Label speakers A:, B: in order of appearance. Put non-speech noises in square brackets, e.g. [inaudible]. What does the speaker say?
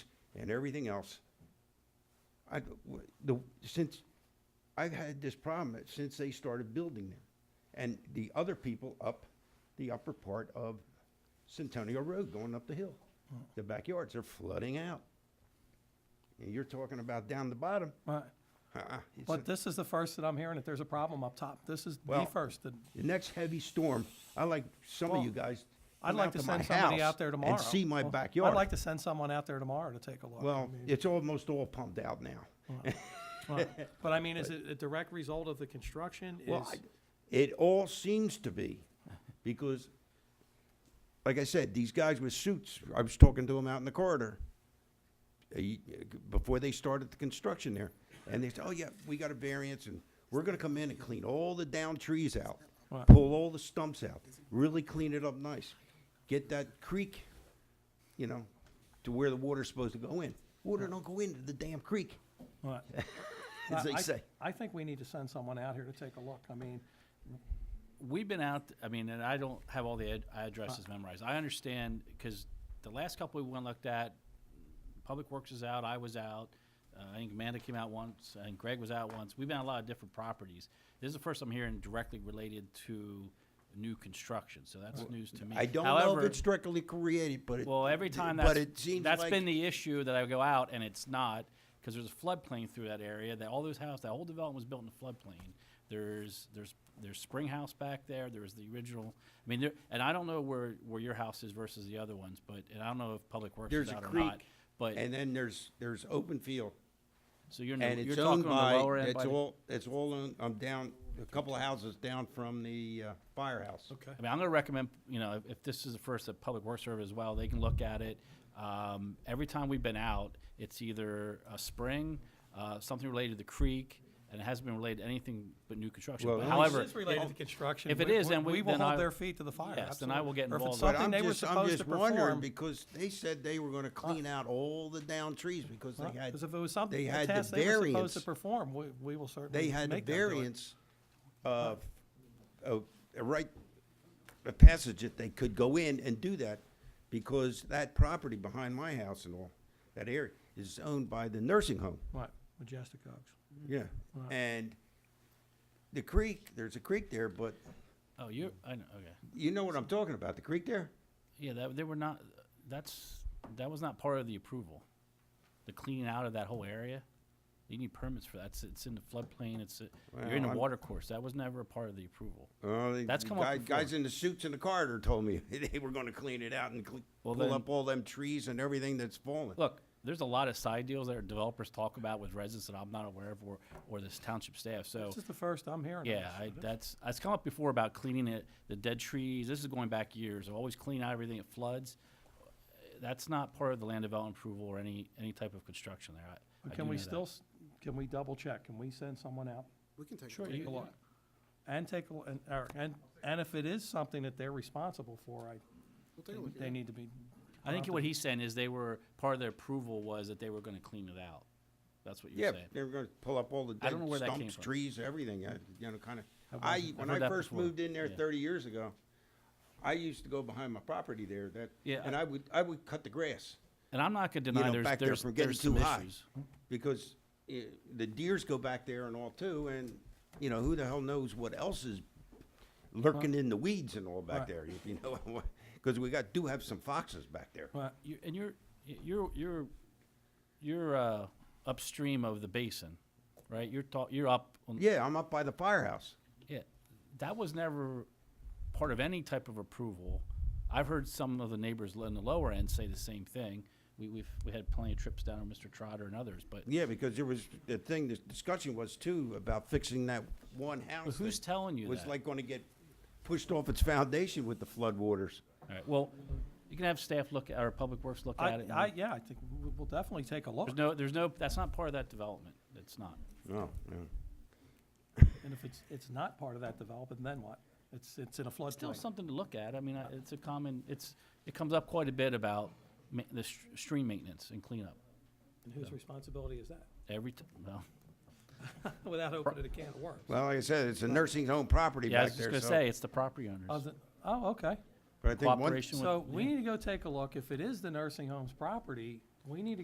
A: and everything else. I, w- the, since, I've had this problem since they started building there. And the other people up the upper part of Centennial Road going up the hill.
B: Mm.
A: The backyards are flooding out. And you're talking about down the bottom.
B: Right.
A: Uh-uh. It's
B: But
A: a-
B: this is the first that I'm hearing that there's a problem up top. This is the
A: Well,
B: first. that-
A: The next heavy storm, I like some of
B: Well,
A: you guys.
B: I'd
A: come
B: like
A: out
B: to
A: my
B: send somebody
A: house
B: out there tomorrow.
A: And see my
B: Well,
A: backyard.
B: I'd like to send someone out there tomorrow to take a look. I
A: Well,
B: mean,
A: it's almost all pumped out now. [laughs]
B: right. But I mean, is it a direct result of the construction?
A: Well,
B: Is-
A: I- it all seems to be, because, like I said, these guys with suits, I was talking to them out in the corridor, uh, y- before they started the construction there, and they said, oh, yeah, we got a variance, and we're gonna come in and clean all the down trees out,
B: Right.
A: pull all the stumps out, really clean it up nice, get that creek, you know, to where the water's supposed to go in. Water don't go into the damn creek,
B: Right.
A: [laughs] as they
B: I- I-
A: say.
B: I think we need to send someone out here to take a look. I mean,
C: We've been out, I mean, and I don't have all the ad-
A: Uh.
C: addresses memorized. I understand, because the last couple we went and looked at, Public Works is out, I was out, uh, I think Amanda came out once, and Greg was out once. We've been on a lot of different properties. This is the first I'm hearing directly related to new construction, so that's news to me.
A: I don't know if
C: However-
A: it's directly created, but it.
C: Well, every time
A: but
C: that's,
A: it seems
C: that's
A: like-
C: been the issue that I go out and it's not, because there's a floodplain through that area, that all those houses, that whole development was built in a floodplain. There's, there's, there's Spring House back there, there's the original, I mean, there, and I don't know where, where your house is versus the other ones, but, and I don't know if Public Works
A: There's
C: is
A: a
C: out or not.
A: creek,
C: But,
A: And then there's, there's open field,
C: so you're, in
A: and
C: the- you're
A: it's
C: talking
A: owned
C: on the lower
A: by,
C: end by,
A: it's
C: the-
A: all, it's all, on- I'm down, a couple of houses down from the uh, firehouse.
B: okay.
C: I mean, I'm gonna recommend, you know, if, if this is the first at Public Works Service as well, they can look at it. Um, every time we've been out, it's either a spring, uh, something related to the creek, and it hasn't been related to anything but new construction.
A: Well,
C: But
A: at least
C: however,
B: This is related to construction.
C: if it
B: We-
C: is, then we-
B: will
C: then
B: hold
C: I-
B: their feet to the fire.
C: Yes, then I will get
B: absolutely. Or if it's
C: involved.
A: But
B: something
A: I'm
B: they were
A: just, I'm
B: supposed to
A: just wondering,
B: perform.
A: because they said they were gonna clean out all the down trees because they had,
B: Because if it was something,
A: they
B: a
A: had the
B: task they were supposed
A: variance.
B: to perform, we, we will certainly
A: they had a
B: make them do it.
A: variance of, of, a right, a passage that they could go in and do that, because that property behind my house and all, that area, is owned by the nursing home.
B: Right, Majestic Oaks.
C: Mm-hmm.
A: Yeah,
B: Right.
A: and the creek, there's a creek there, but
C: oh, you, I know, okay.
A: you know what I'm talking about, the creek there?
C: Yeah, that, they were not, that's, that was not part of the approval. The cleaning out of that whole area, you need permits for that. It's, it's in the floodplain, it's, uh, you're
A: Well,
C: in the
A: I'm-
C: water course. That was never a part of the approval.
A: Well, the
C: That's
A: Oh, the
C: come up
A: guy-
C: before.
A: Guys in the suits in the corridor told me [laughs] they were gonna clean it out and cle-
C: Well,
A: pull
C: then-
A: up all them trees and everything that's fallen.
C: Look, there's a lot of side deals that our developers talk about with residents that I'm not aware of or, or this township staff, so.
B: This is the first I'm hearing. of
C: Yeah,
B: this.
C: I, that's, it's come up before about cleaning it, the dead trees, this is going back years, I've always clean out everything, it floods. That's not part of the land development approval or any, any type of construction there, I- I
B: But
C: do
B: Can we
C: know that.
B: still, s- can we double check? Can we send someone out?
D: We can take a
C: Sure,
D: look.
C: you-
B: Take a look. And take a, l- and, or- and, and if it is something that they're responsible for, I,
D: We'll take a look.
B: they- they need to be.
C: I think what he's saying is they were, part of their approval was that they were gonna clean it out, that's what
A: Yeah,
C: you're saying.
A: they were gonna pull up all the
C: I
A: dead
C: don't know where that came
A: stumps,
C: from.
A: trees, everything, I- you know, kinda.
B: I've
A: I,
B: heard-
A: when
C: I've heard
A: I
C: that
A: first
C: before.
A: moved in there
C: Yeah.
A: thirty years ago, I used to go behind my property there, that,
C: Yeah,
A: and
C: I-
A: I would, I would cut the grass.
C: And I'm not gonna
A: you
C: deny
A: know,
C: there's,
A: back there
C: there's,
A: from getting
C: there's
A: too
C: some
A: high.
C: issues.
A: Because eh, the deers go back there and all too, and, you know, who the hell knows what else is lurking in the weeds and all back
B: Right.
A: there, if you know, [laughs] because we got, do have some foxes back there.
B: Right,
C: you, and you're you're you're you're uh, upstream of the basin, right? You're ta- you're up on
A: Yeah, I'm up by the firehouse.
C: yeah. That was never part of any type of approval. I've heard some of the neighbors in the lower end say the same thing. We we've we had plenty of trips down with Mr. Trotter and others, but
A: Yeah, because there was, the thing, the discussion was too about fixing that one house.
C: who's
A: that
C: telling you
A: Was
C: that?
A: like gonna get pushed off its foundation with the floodwaters.
C: all right, well, you can have staff look at or public works look at
B: I,
C: it. and-
B: I, yeah, I think we- we'll definitely take a look.
C: there's no there's no that's not part of that development. It's not.
A: No, no.
B: And if it's, it's not part of that development, then what? It's, it's in a
C: Still
B: floodplain.
C: something to look at. I mean, I- it's a common, it's, it comes up quite a bit about ma- the s- stream maintenance and cleanup.
B: And whose responsibility is that? [laughs]
C: Every, t- well,
B: Without opening a can of worms.
A: Well, like I said, it's a nursing home property
C: yeah, I was
A: back
C: just
A: there,
C: gonna
A: so-
C: say, it's the property owners.
B: Other- Oh, okay.
A: But I think one,
C: Cooperation with.
B: So we need to go take a look. If it is the nursing home's property, we need to